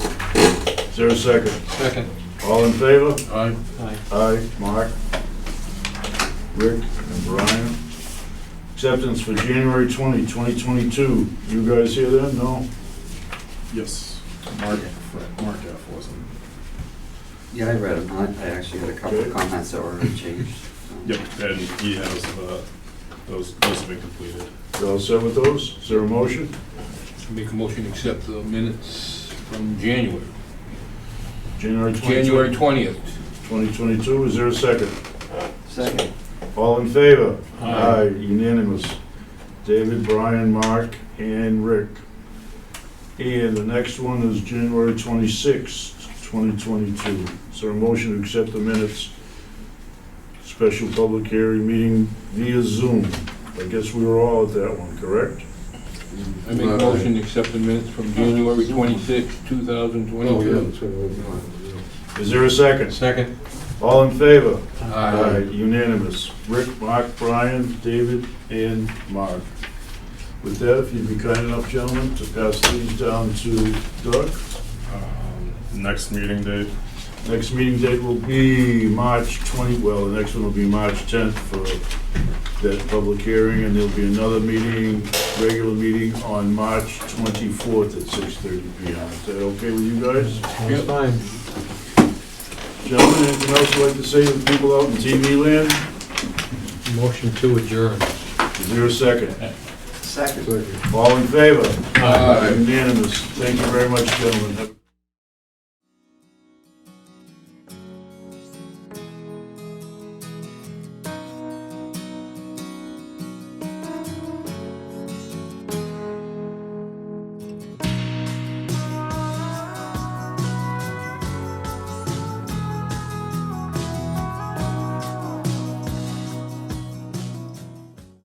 there a second? Second. All in favor? Aye. Aye, Mark, Rick, and Brian. Acceptance for January 20, 2022. You guys hear that? No? Yes. Mark, Mark F. wasn't. Yeah, I read them. I I actually had a couple of comments that were changed. so. Yep, and he has, uh, those, those have been completed. You all set with those? Is there a motion? Make a motion to accept the minutes from January, January 20, January 20th. 2022, is there a second? Second, All in favor? Aye. Unanimous. David, Brian, Mark, and Rick. And the next one is January 26, 2022. Is there a motion to accept the minutes? Special public hearing meeting via Zoom. I guess we were all at that one, correct? I make a motion to accept the minutes from January 26th, 2022. Is there a second? Second. All in favor? Aye, Aye. unanimous. Rick, Mark, Brian, David, and Mark. With that, if you'd be kind enough, gentlemen, to pass these down to Doug. Um, Next meeting date, Next meeting date will be March 20, well, the next one will be March 10th for that public hearing, and there'll be another meeting, regular meeting on March 24th at 6:30 PM. Is that okay with you guys? Yep. Gentlemen, anything else you'd like to say to the people out in TV land? Motion to adjourn. Is there a second? second. All in favor? Aye. Unanimous. Thank you very much, gentlemen. Have-